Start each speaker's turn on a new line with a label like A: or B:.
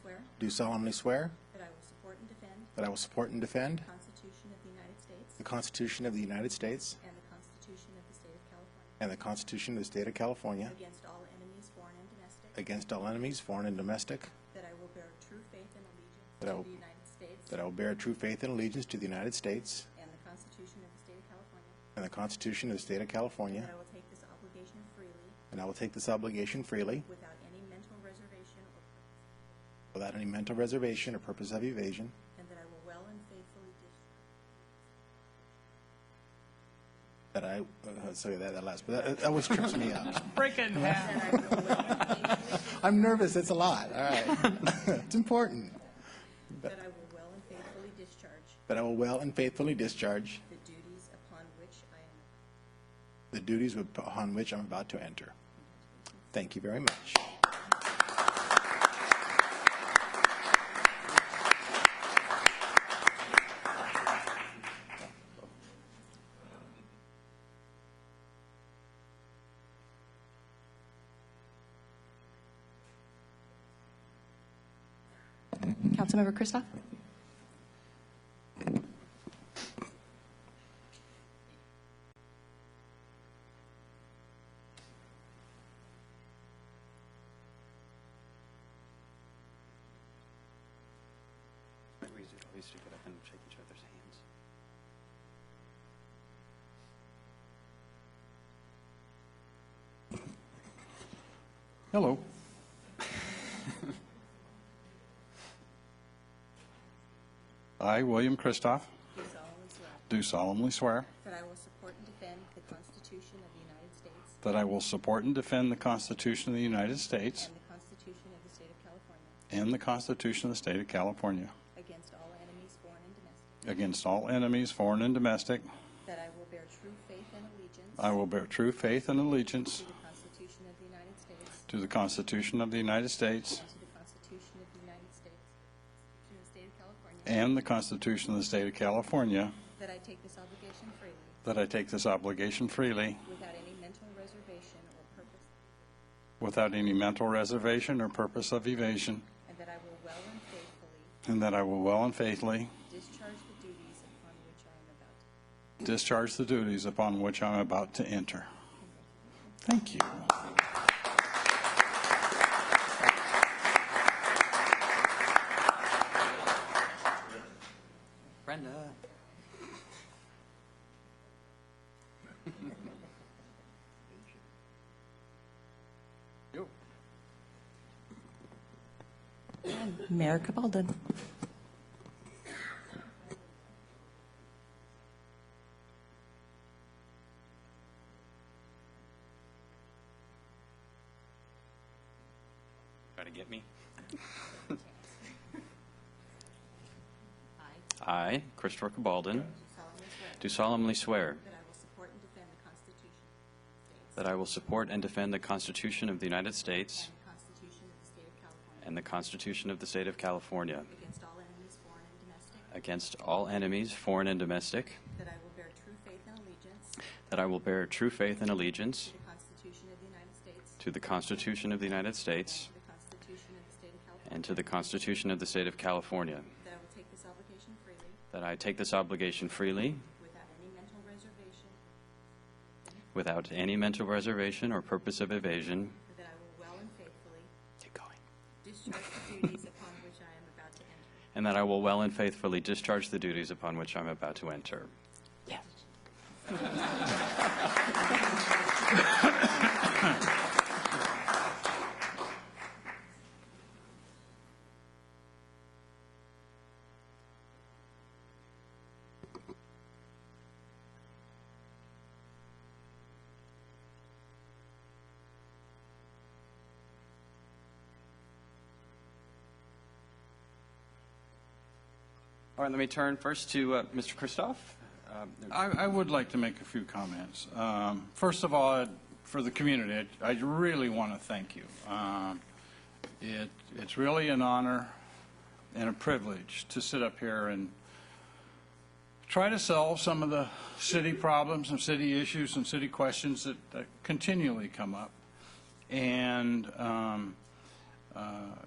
A: swear
B: do solemnly swear
A: that I will support and defend
B: that I will support and defend
A: the Constitution of the United States
B: the Constitution of the United States
A: and the Constitution of the State of California
B: and the Constitution of the State of California
A: against all enemies, foreign and domestic,
B: against all enemies, foreign and domestic,
A: that I will bear true faith and allegiance
B: That I
A: to
B: will-
A: the United States
B: that I will bear true faith and allegiance to the United States
A: and the Constitution of the State of California,
B: and the Constitution of the State of
A: that
B: California,
A: I will take this obligation freely
B: and I will take this obligation freely
A: without any mental reservation or
B: without any mental reservation or purpose of evasion,
A: and that I will well and faithfully discharge
B: that I, uh, sorry, that that last, but that- that always trips me up.
C: Break it in half.
A: that I will well and faithfully
B: I'm nervous, it's a lot, all right. It's important.
A: That I will well and faithfully discharge
B: That I will well and faithfully discharge
A: the duties upon which I am.
B: the duties upon which I'm about to enter. Thank you very much.
D: Councilmember Kristoff?
E: Might be easier always to get up and shake each other's hands.
F: Hello. I, William Kristoff,
A: Do solemnly swear
F: do solemnly swear
A: that I will support and defend the Constitution of the United States
F: that I will support and defend the Constitution of the United States
A: and the Constitution of the State of California
F: and the Constitution of the State of California
A: against all enemies, foreign and domestic,
F: against all enemies, foreign and domestic.
A: that I will bear true faith and allegiance
F: I will bear true faith and allegiance
A: to the Constitution of the United States
F: to the Constitution of the United
A: and to
F: States
A: the Constitution of the United States, to the State of California,
F: and the Constitution of the State of California,
A: that I take this obligation freely
F: that I take this obligation freely
A: without any mental reservation or purpose
F: without any mental reservation or purpose of evasion,
A: And that I will well and faithfully
F: and that I will well and faithfully
A: discharge the duties upon which I am about to.
F: Discharge the duties upon which I'm about to enter. Thank you.
E: Brenda. Yo.
D: Mayor Cabaldon.
E: Try to get me.
A: I
E: I, Christopher Cabalden,
A: solemnly swear
E: do solemnly swear
A: that I will support and defend the Constitution of the United States
E: that I will support and defend the Constitution of the United States
A: and the Constitution of the State of California
E: and the Constitution of the State of California
A: against all enemies, foreign and domestic,
E: against all enemies, foreign and domestic,
A: that I will bear true faith and allegiance to
E: that I will bear true faith and allegiance
A: the Constitution of the United States
E: to the Constitution of
A: and
E: the United States
A: to the Constitution of the State of California,
E: and to the Constitution of the State of California,
A: that I will take this obligation freely
E: that I take this obligation freely
A: without any mental reservation,
E: without any mental reservation or purpose of evasion.
A: and that I will well and faithfully
E: Keep going.
A: discharge the duties upon which I am about to enter.
E: And that I will well and faithfully discharge the duties upon which I'm about to enter. All right, let me turn first to uh, Mr. Kristoff. Um,
F: I, I would like to make a few comments. Um, First of all, I'd- for the community, I I really want to thank you. Um, It, it's really an honor and a privilege to sit up here and try to solve some of the city problems and city issues and city questions that that continually come up. And um, uh,